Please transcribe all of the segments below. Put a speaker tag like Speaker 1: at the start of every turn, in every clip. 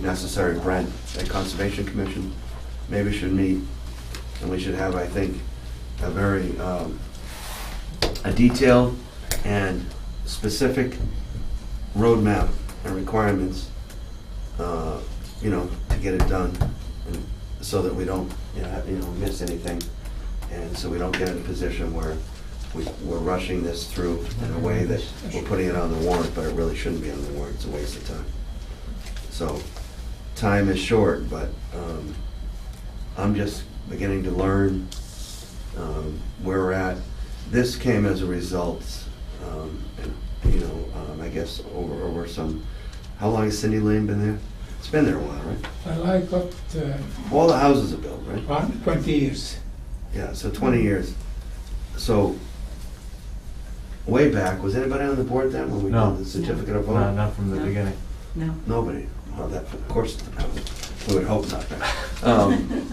Speaker 1: necessary, Brent, that Conservation Commission maybe should meet, and we should have, I think, a very, um, a detailed and specific roadmap and requirements, uh, you know, to get it done, and so that we don't, you know, you know, miss anything, and so we don't get in a position where we- we're rushing this through in a way that we're putting it on the warrant, but it really shouldn't be on the warrant, it's a waste of time. So, time is short, but um, I'm just beginning to learn um, where we're at. This came as a result, um, and, you know, um, I guess over, over some, how long has Cindy Lane been there? It's been there a while, right?
Speaker 2: Well, I got uh,
Speaker 1: All the houses are built, right?
Speaker 2: around 20 years.
Speaker 1: Yeah, so 20 years. So, way back, was anybody on the board then when we
Speaker 3: No.
Speaker 1: did the certificate of vote?
Speaker 3: No, not from the beginning.
Speaker 4: No.
Speaker 1: Nobody. Well, that, of course, we would hope not. Um,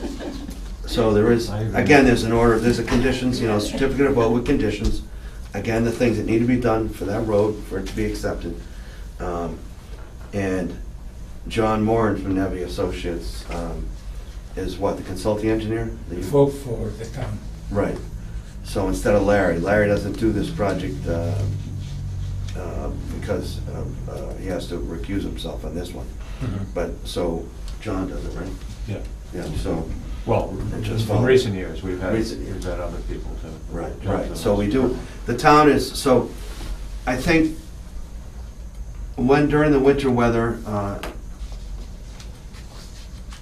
Speaker 1: So there is, again, there's an order, there's a conditions, you know, certificate of vote with conditions. Again, the things that need to be done for that road, for it to be accepted. Um, And John Moran from Nevy Associates um, is what, the consulting engineer? The-
Speaker 2: Vote for the town.
Speaker 1: Right. So instead of Larry, Larry doesn't do this project uh, uh, because uh, uh, he has to recuse himself on this one. But, so, John does it, right?
Speaker 3: Yeah.
Speaker 1: Mm-hmm. Yeah, so,
Speaker 3: Well,
Speaker 1: It just
Speaker 3: in
Speaker 1: followed.
Speaker 3: recent years, we've had,
Speaker 1: Recent years.
Speaker 3: we've had other people to.
Speaker 1: right,
Speaker 3: jump
Speaker 1: right,
Speaker 3: in Uh,
Speaker 1: so we
Speaker 3: this.
Speaker 1: do, the town is, so, I think, when, during the winter weather, uh,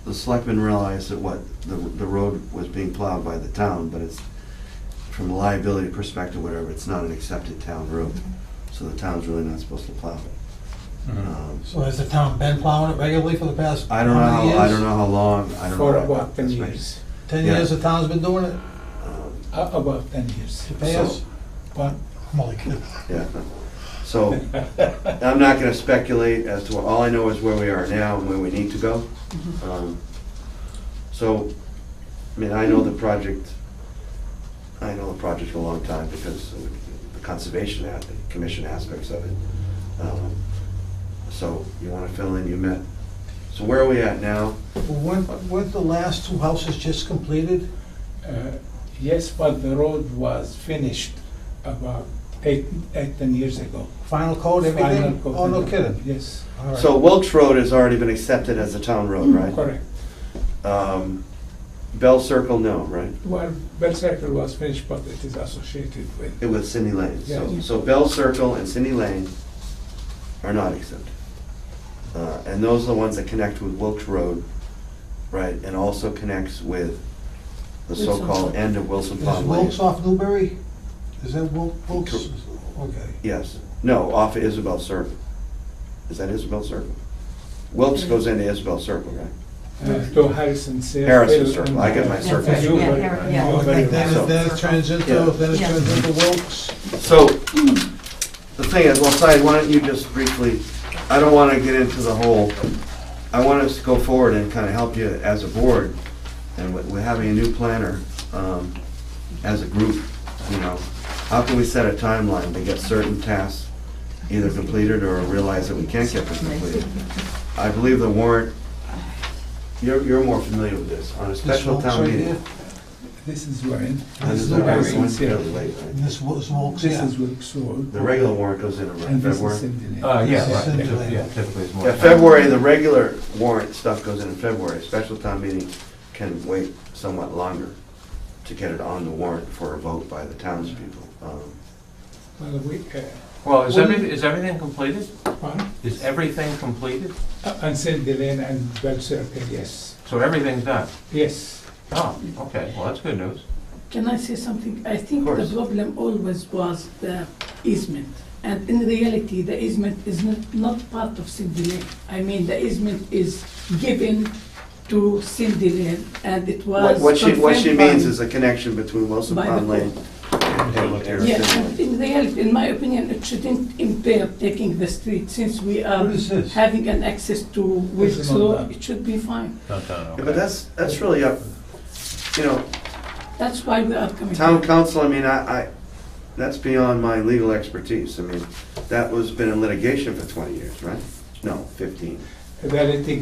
Speaker 1: the selectmen realized that what, the, the road was being plowed by the town, but it's, from a liability perspective, whatever, it's not an accepted town road, so the town's really not supposed to plow it. Um,
Speaker 5: So has the town been plowing it regularly for the past?
Speaker 1: I don't know,
Speaker 5: how many
Speaker 1: how I
Speaker 5: years?
Speaker 1: don't know how long, I don't know.
Speaker 2: For
Speaker 1: what-
Speaker 2: about 10
Speaker 1: that's right.
Speaker 2: years.
Speaker 5: Ten
Speaker 1: Yeah.
Speaker 5: years the town's been doing it?
Speaker 1: Um,
Speaker 2: Uh, About 10 years.
Speaker 5: To pay us?
Speaker 2: But
Speaker 5: I'm only kidding.
Speaker 1: Yeah, so, I'm not gonna speculate as to, all I know is where we are now and where we need to go.
Speaker 5: Mm-hmm.
Speaker 1: Um, So, I mean, I know the project, I know the project for a long time because of the conservation, a- the commission aspects of it. Um, So, you wanna fill in, you met, so where are we at now?
Speaker 5: Weren't, weren't the last two houses just completed?
Speaker 2: uh, yes, but the road was finished about eight, eight, 10 years ago.
Speaker 5: Final coat,
Speaker 2: Final
Speaker 5: everything?
Speaker 2: coat.
Speaker 5: Oh, no kidding?
Speaker 2: Yes,
Speaker 5: All right. Mm-hmm.
Speaker 1: So Wilkes Road has already been accepted as a town road, right?
Speaker 2: correct.
Speaker 1: Um, Bell Circle, no, right?
Speaker 2: Well, Bell Circle was finished, but it is associated with,
Speaker 1: It was Cindy Lane, so,
Speaker 2: Yeah.
Speaker 1: so Bell Circle and Cindy Lane are not exempt. Uh, and those are the ones that connect with Wilkes Road, right, and also connects with the
Speaker 4: Wilson
Speaker 1: so-called
Speaker 4: Pond.
Speaker 1: end of Wilson
Speaker 5: Is
Speaker 1: Pond Lane.
Speaker 5: Wilkes off Newbury? Is that Wil- Wilkes?
Speaker 1: Cor-
Speaker 5: Okay.
Speaker 1: Yes, no, off of Isabel Circle. Is that Isabel Circle? Wilkes goes into Isabel Circle, right?
Speaker 2: uh, to Harrison Circle.
Speaker 1: Harrison Circle, I get my
Speaker 2: and, uh,
Speaker 1: circles.
Speaker 2: Newbury-
Speaker 4: Yeah, Har- yeah.
Speaker 2: Newbury
Speaker 5: Then it,
Speaker 2: was-
Speaker 1: So-
Speaker 5: then it turns into,
Speaker 1: Yeah.
Speaker 5: then it
Speaker 4: Yeah.
Speaker 5: turns into Wilkes?
Speaker 1: So, the thing is, well, Syed, why don't you just briefly, I don't want to get into the whole, I want us to go forward and kind of help you as a board, and we- we're having a new planner um, as a group, you know. How can we set a timeline to get certain tasks either completed or realize that we can't get them completed? I believe the warrant, you're, you're more familiar with this, on a
Speaker 5: This
Speaker 1: special
Speaker 5: Wilkes
Speaker 1: town
Speaker 5: right
Speaker 1: meeting.
Speaker 5: here?
Speaker 2: This is Warren.
Speaker 1: and this is
Speaker 2: the
Speaker 1: a regular
Speaker 2: Harrison
Speaker 1: one,
Speaker 2: Circle.
Speaker 1: fairly late, right?
Speaker 5: And this Wilkes, Wilkes,
Speaker 2: This
Speaker 5: yeah.
Speaker 2: is Wilkes Road.
Speaker 1: The regular warrant goes in around
Speaker 2: And this
Speaker 1: February.
Speaker 2: is Cindy Lane.
Speaker 3: Uh,
Speaker 5: This
Speaker 3: yeah,
Speaker 5: is
Speaker 3: right,
Speaker 5: Cinderella.
Speaker 3: typically- yeah, typically it's more.
Speaker 1: Yeah, February, the regular warrant stuff goes in in February, special town meeting can wait somewhat longer to get it on the warrant for a vote by the townspeople. Um,
Speaker 2: Well, we, uh,
Speaker 3: Well, is everything, is everything completed?
Speaker 2: Warren,
Speaker 3: Is everything completed?
Speaker 2: uh, and Cindy Lane and Bell Circle, yes,
Speaker 3: So everything's done?
Speaker 2: yes.
Speaker 3: Oh, okay, well, that's good news.
Speaker 4: Can I say something? I
Speaker 1: Of
Speaker 4: think the
Speaker 1: course.
Speaker 4: problem always was the easement. And in reality, the easement is not, not part of Cindy Lane. I mean, the easement is given to Cindy Lane and it
Speaker 1: What
Speaker 4: was.
Speaker 1: what she, what she
Speaker 4: confirmed by-
Speaker 1: means is a connection between Wilson
Speaker 4: By the
Speaker 1: Pond Lane and and
Speaker 4: Yes,
Speaker 1: Harrison
Speaker 4: and
Speaker 1: Lane.
Speaker 4: in reality, in my opinion, it shouldn't impair taking the street since we are
Speaker 5: What is this?
Speaker 4: having an access to
Speaker 2: is
Speaker 4: Wilkes
Speaker 2: not
Speaker 4: Road.
Speaker 2: done.
Speaker 4: It should be fine.
Speaker 3: Not done,
Speaker 1: Yeah, But that's, that's really up, you know,
Speaker 4: That's why we are coming.
Speaker 1: town council, I mean, I, I, that's beyond my legal expertise. I mean, that was, been in litigation for 20 years, right? No, 15.
Speaker 2: That it